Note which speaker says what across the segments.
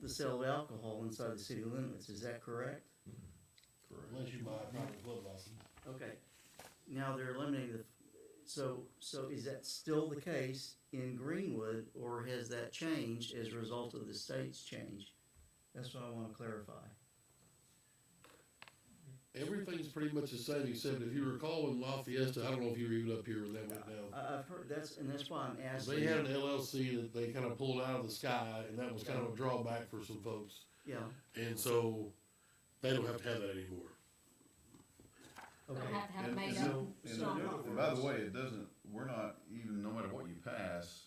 Speaker 1: the sale of alcohol inside the city limits, is that correct?
Speaker 2: Unless you buy a private club license.
Speaker 1: Okay, now they're eliminating the, so, so is that still the case in Greenwood, or has that changed as a result of the state's change? That's what I wanna clarify.
Speaker 2: Everything's pretty much the same, except if you recall in La Fiesta, I don't know if you were even up here when that went down.
Speaker 1: I, I've heard, that's, and that's why I'm asking.
Speaker 2: They had an LLC that they kind of pulled out of the sky, and that was kind of a drawback for some folks.
Speaker 1: Yeah,
Speaker 2: And so they don't have to have that anymore.
Speaker 1: okay,
Speaker 3: Don't have to have
Speaker 4: And-
Speaker 3: made
Speaker 1: so-
Speaker 3: up.
Speaker 4: And,
Speaker 1: So-
Speaker 3: strong-
Speaker 4: and by the way, it doesn't, we're not, even no matter what you pass,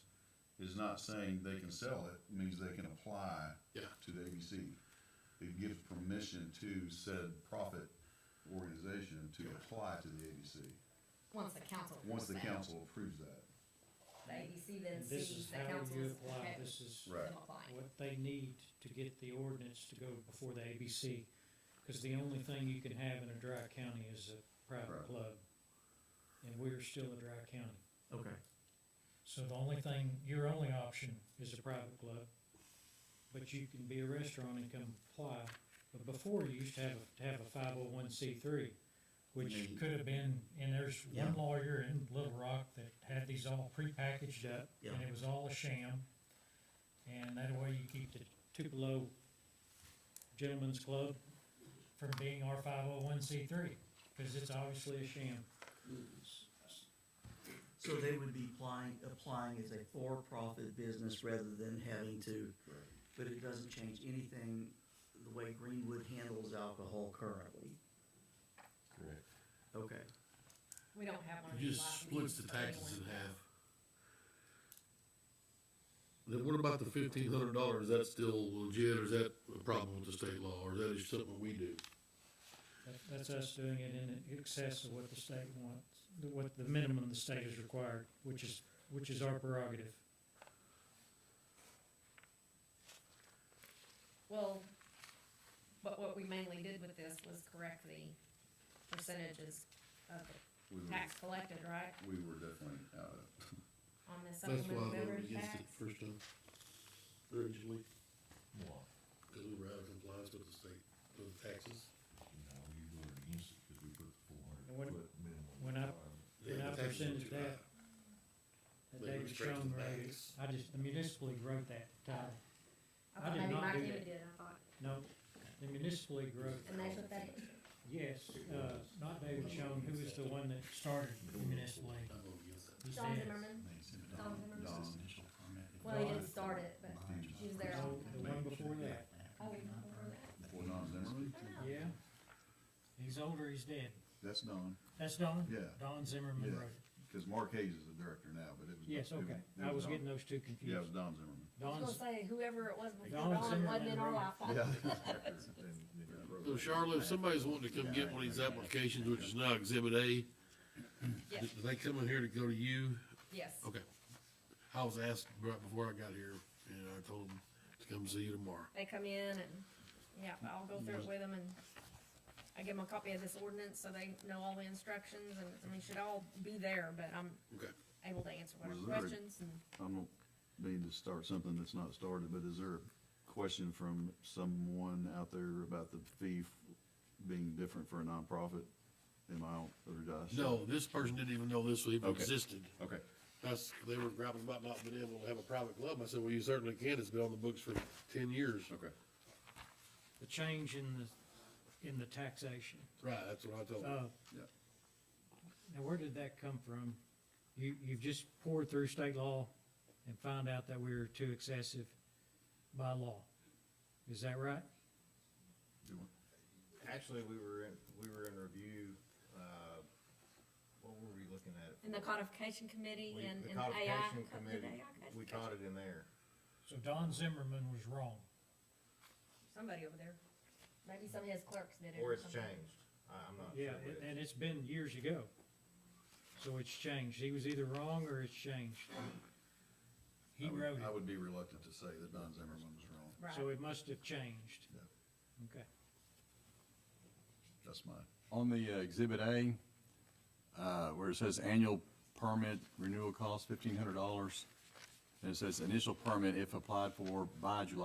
Speaker 4: is not saying they can sell it, It means they can apply
Speaker 2: Yeah.
Speaker 4: to the ABC. It gives permission to said profit organization to apply to the ABC,
Speaker 3: Once the council.
Speaker 4: once the
Speaker 3: approves that.
Speaker 4: council approves that.
Speaker 3: The ABC then
Speaker 5: And This is
Speaker 3: sees the
Speaker 5: how
Speaker 3: council
Speaker 5: you
Speaker 3: is
Speaker 5: apply,
Speaker 3: okay with
Speaker 5: this is
Speaker 3: them applying.
Speaker 5: what they need to get the ordinance to go before the ABC. Cause the only thing you can have in a dry county is a private
Speaker 4: Right.
Speaker 5: club. And we're still a dry county.
Speaker 1: okay,
Speaker 5: So the only thing, your only option is a private club. But you can be a restaurant and come apply. But before, you used to have, to have a five oh one C three, which
Speaker 4: Mhm.
Speaker 5: could have been, and there's
Speaker 1: Yeah.
Speaker 5: one lawyer in Little Rock that had these all prepackaged up.
Speaker 1: Yeah.
Speaker 5: And it was all a sham. And that way you keep the Tupelo Gentlemen's Club from being our five oh one C three, cause it's obviously a sham.
Speaker 1: so they would be applying, applying as a for-profit business rather than having to,
Speaker 4: Right.
Speaker 1: but it doesn't change anything the way Greenwood handles alcohol currently,
Speaker 4: Correct.
Speaker 1: okay.
Speaker 3: We don't have one of
Speaker 2: You
Speaker 3: these
Speaker 2: just
Speaker 3: licenses
Speaker 2: splits the
Speaker 3: for everyone.
Speaker 2: taxes in half. Then what about the fifteen hundred dollars? Is that still legit, or is that a problem with the state law, or is that just something we do?
Speaker 5: That, that's us doing it in excess of what the state wants, the- what the minimum the state is required, which is, which is our prerogative.
Speaker 3: Well, but what we mainly did with this was correct the percentages of the
Speaker 4: We were,
Speaker 3: tax collected, right,
Speaker 4: we were definitely out of,
Speaker 3: on the
Speaker 2: That's why I
Speaker 3: supplemental
Speaker 2: voted
Speaker 3: beverage
Speaker 2: against
Speaker 3: tax?
Speaker 2: it the first time, originally. Because we were out of compliance with the state, with the taxes.
Speaker 5: And when, when I,
Speaker 2: Yeah,
Speaker 5: when I
Speaker 2: the taxes were
Speaker 5: presented
Speaker 2: too high.
Speaker 5: that, that
Speaker 2: They went
Speaker 5: David
Speaker 2: straight to the
Speaker 5: Schoen wrote,
Speaker 2: banks.
Speaker 5: I just, the municipal league wrote that title. I
Speaker 3: thought
Speaker 5: did
Speaker 3: maybe
Speaker 5: not
Speaker 3: Mike
Speaker 5: do
Speaker 3: Emmett
Speaker 5: that.
Speaker 3: did, I thought,
Speaker 5: No, the municipal league wrote,
Speaker 3: and that's what they did.
Speaker 5: yes, uh, not David Schoen, who was the one that started the municipal league.
Speaker 2: I voted against that.
Speaker 5: It was
Speaker 3: John
Speaker 5: Dan.
Speaker 3: Zimmerman, Tom Zimmerman?
Speaker 4: Dom.
Speaker 3: well, he didn't start it, but, She was there.
Speaker 5: No, the one before that,
Speaker 3: oh, before that.
Speaker 4: Well, Don Zimmerman,
Speaker 3: I don't know.
Speaker 5: yeah. He's older, he's dead.
Speaker 4: that's Don,
Speaker 5: That's Don?
Speaker 4: yeah,
Speaker 5: Don Zimmerman
Speaker 4: Yeah.
Speaker 5: wrote it.
Speaker 4: cause Mark Hayes is the director now, but it was.
Speaker 5: Yes,
Speaker 4: it
Speaker 5: okay.
Speaker 4: it
Speaker 5: I was
Speaker 4: Don.
Speaker 5: getting those two
Speaker 4: Yeah, it was
Speaker 5: confused.
Speaker 4: Don Zimmerman.
Speaker 3: I was
Speaker 5: Don's,
Speaker 3: gonna say, whoever it was before
Speaker 5: Don
Speaker 3: Dawn wasn't in our
Speaker 5: Zimmerman
Speaker 3: lifetime.
Speaker 2: So Charlotte, if somebody's wanting to come get one of these applications, which is now exhibit A, do
Speaker 3: Yes.
Speaker 2: do they come in here to go to you?
Speaker 3: Yes,
Speaker 2: Okay. I was asked right before I got here, and I told them to come see you tomorrow.
Speaker 3: they come in and, yeah, I'll go through it with them and I give them a copy of this ordinance so they know all the instructions and, I mean, should all be there, but I'm
Speaker 2: Okay.
Speaker 3: able to answer whatever
Speaker 4: Was there a-
Speaker 3: questions and.
Speaker 4: I don't mean to start something that's not started, but is there a question from someone out there about the fee f- being different for a nonprofit? Am I, on- or did I? say-
Speaker 2: No, this person didn't even know this even
Speaker 4: Okay.
Speaker 2: existed.
Speaker 4: Okay,
Speaker 2: That's, they were grappling about not being able to have a private club. I said, well, you certainly can. It's been on the books for ten years.
Speaker 4: okay.
Speaker 5: the change in the, in the taxation.
Speaker 2: Right, that's what I told them.
Speaker 5: Uh,
Speaker 4: Yeah.
Speaker 5: Now, where did that come from? You, you've just poured through state law and found out that we were too excessive by law. Is that right?
Speaker 6: Actually, we were in, we were in review, uh, what were we looking at? it
Speaker 3: And the
Speaker 6: for?
Speaker 3: codification committee
Speaker 6: We-
Speaker 3: and,
Speaker 6: the
Speaker 3: and AI.
Speaker 6: codification
Speaker 3: co- did
Speaker 6: committee,
Speaker 3: AI
Speaker 6: We
Speaker 3: codification?
Speaker 6: caught it in there.
Speaker 5: So Don Zimmerman was wrong.
Speaker 3: Somebody over there, maybe some of his clerks did it.
Speaker 6: Or it's
Speaker 3: something.
Speaker 6: changed. I, I'm not sure.
Speaker 5: Yeah,
Speaker 6: which.
Speaker 5: and- and it's been years ago. So it's changed. He was either wrong or it's changed. He
Speaker 4: I would-
Speaker 5: wrote
Speaker 4: I
Speaker 5: it,
Speaker 4: would be reluctant to say that Don Zimmerman was wrong.
Speaker 5: so
Speaker 3: Right,
Speaker 5: it must have changed. Okay.
Speaker 4: That's my,
Speaker 7: On the uh, exhibit A, uh, where it says annual permit renewal cost fifteen hundred dollars, and it says initial permit if applied for by July